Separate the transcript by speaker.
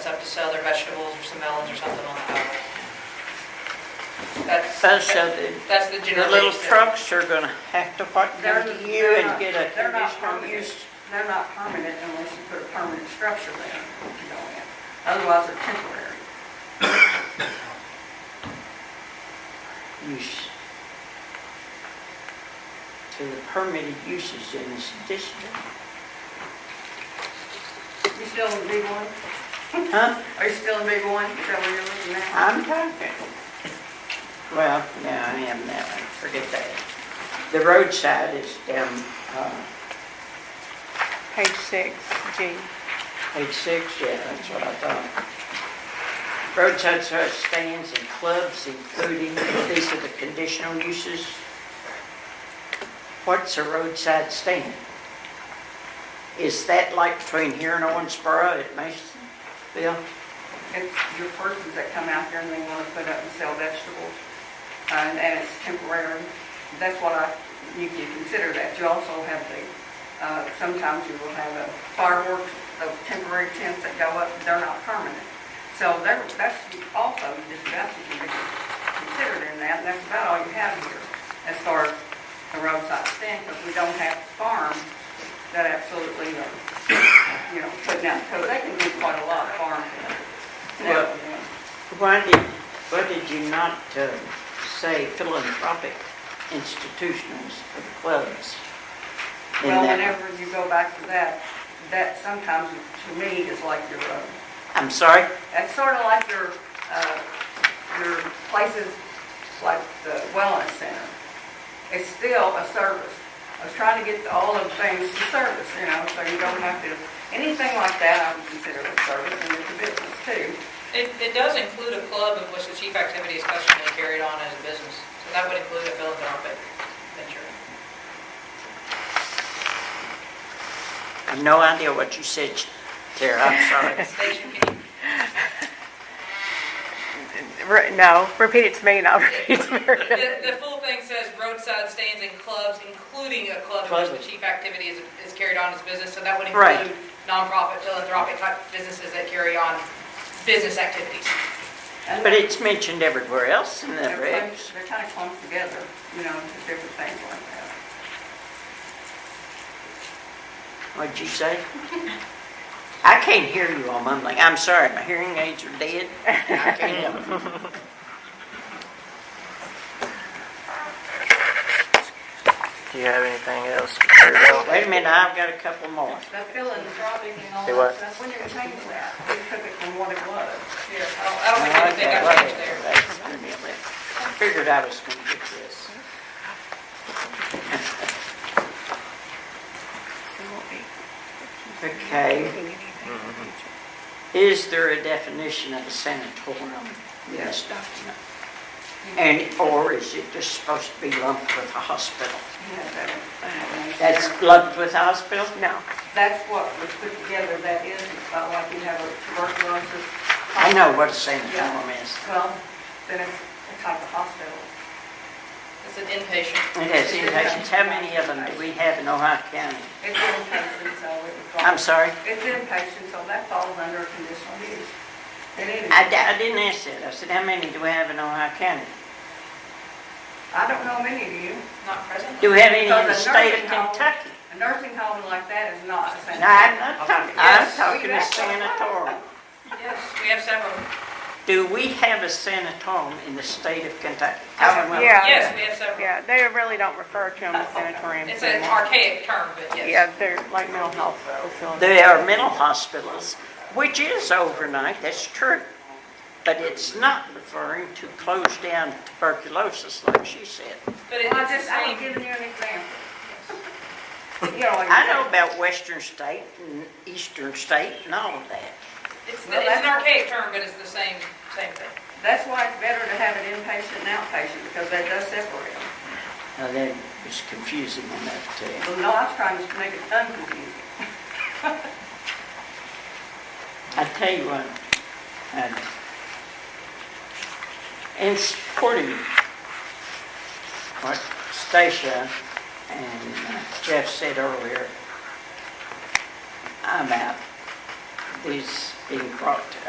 Speaker 1: to sell their vegetables or some melons or something on the highway. That's,
Speaker 2: Those of the,
Speaker 1: that's the
Speaker 2: the
Speaker 1: general.
Speaker 2: little
Speaker 1: basis.
Speaker 2: trucks are gonna have to fuck go to you and get a
Speaker 3: They're not
Speaker 2: conditional
Speaker 3: permanent,
Speaker 2: use.
Speaker 3: they're not permanent unless you put a permanent structure there to go in. Otherwise, they're temporary.
Speaker 2: use to the permitted uses in this district.
Speaker 3: You still in B one?
Speaker 2: Huh?
Speaker 3: Are you still in B one? Is that where you're looking at?
Speaker 2: I'm talking. Well, no, I am now, I forget that. The roadside is down, uh,
Speaker 4: Page six, G.
Speaker 2: page six, yeah, that's what I thought. Roadside service stands and clubs including, these are the conditional uses. What's a roadside stand? Is that like between here and Owensboro at Masonville?
Speaker 3: It's your persons that come out there and they wanna put up and sell vegetables, uh, and it's temporary. That's what I, you can consider that. You also have the, uh, sometimes you will have a fireworks, those temporary tents that go up, they're not permanent. So there, that's also just about to be considered in that, and that's about all you have here as far as the roadside stand, because we don't have farms that absolutely are, you know, putting out, because they can do quite a lot of farms. and everything.
Speaker 2: Why did, why did you not uh, say philanthropic institutions for the clubs? in
Speaker 3: Well,
Speaker 2: that?
Speaker 3: whenever you go back to that, that sometimes to me is like your, uh,
Speaker 2: I'm sorry?
Speaker 3: That's sort of like your, uh, your places like the wellness center. It's still a service. I was trying to get all of the things to service, you know, so you don't have to, anything like that, I would consider a service and it's a business too.
Speaker 1: It, it does include a club in which the chief activity is customary carried on as a business. So that would include a philanthropic venture.
Speaker 2: I have no idea what you said, Tara, I'm sorry.
Speaker 1: Station, can you,
Speaker 4: Re- No, repeat it to me and I'll repeat it to Meredith.
Speaker 1: the, the full thing says roadside stands and clubs, including a club in which the chief activity is, is carried on as business. So that would
Speaker 2: Right.
Speaker 1: include nonprofit philanthropic type businesses that carry on business activities.
Speaker 3: And
Speaker 2: But it's mentioned everywhere else in the
Speaker 3: They're kind
Speaker 2: regs.
Speaker 3: of- they're kind of clumped together, you know, just different things like that.
Speaker 2: What'd you say? I can't hear you all mumbling. I'm sorry, my hearing aids are dead. I can't help it.
Speaker 5: Do you have anything else? Mr. Bell?
Speaker 2: Wait a minute, I've got a couple more.
Speaker 3: The philanthropic and all
Speaker 5: Say
Speaker 3: that
Speaker 5: what?
Speaker 3: stuff, when you change that, we took it from what it was.
Speaker 1: Here, I don't- I don't think anything
Speaker 2: Okay,
Speaker 1: got changed there.
Speaker 2: that's gonna be it. Figured I was gonna get this. Okay, Mm-hmm. is there a definition of a sanatorium in this document? And, or is it just supposed to be lumped with a hospital?
Speaker 3: You know, that- that-
Speaker 2: That's lumped with a hospital?
Speaker 4: No,
Speaker 3: That's what was put together, that is, it's not like you have a tuberculosis.
Speaker 2: I know what a sanatorium is.
Speaker 3: Well, then it's a type of hospital.
Speaker 1: It's an inpatient.
Speaker 2: It has inpatients. How many of them do we have in Ohio County?
Speaker 3: It's inpatient, so it was.
Speaker 2: I'm sorry,
Speaker 3: It's inpatient, so that falls under conditional use. It is.
Speaker 2: I, di- I didn't ask that. I said, how many do we have in Ohio County?
Speaker 3: I don't know many of you.
Speaker 1: Not presently.
Speaker 2: Do we have any in the
Speaker 3: Because a
Speaker 2: state of
Speaker 3: nursing home-
Speaker 2: Kentucky?
Speaker 3: A nursing home like that is not a
Speaker 2: No,
Speaker 3: sanitary.
Speaker 2: I'm not talking, I'm
Speaker 1: Yes, we
Speaker 2: talking
Speaker 1: do.
Speaker 2: a sanatorium.
Speaker 1: Yes, we have several.
Speaker 2: Do we have a sanatorium in the state of Kentucky?
Speaker 3: Oh,
Speaker 2: Commonwealth?
Speaker 4: Yeah.
Speaker 1: Yes, we have several.
Speaker 4: yeah, they really don't refer to them as sanatoriums
Speaker 1: It's an
Speaker 4: anymore.
Speaker 1: archaic term, but yes.
Speaker 4: Yeah, they're like mental health facilities.
Speaker 2: There are mental hospitals, which is overnight, that's true. But it's not referring to close down tuberculosis like she said.
Speaker 1: But it-
Speaker 3: I
Speaker 1: it's
Speaker 3: just,
Speaker 1: the
Speaker 3: I'm
Speaker 1: same,
Speaker 3: giving you an example. You know, like.
Speaker 2: I know about western state and eastern state and all of that.
Speaker 1: it's,
Speaker 3: Well,
Speaker 1: the- it's an
Speaker 3: that's-
Speaker 1: archaic term, but it's the same, same thing.
Speaker 3: That's why it's better to have an inpatient and outpatient, because that does separate them.
Speaker 2: Now that is confusing enough to,
Speaker 3: Well, no, I was trying to make it unconfusing.
Speaker 2: I tell you what, and in supporting what Stacia and uh, Jeff said earlier, I'm out. These being brought to us.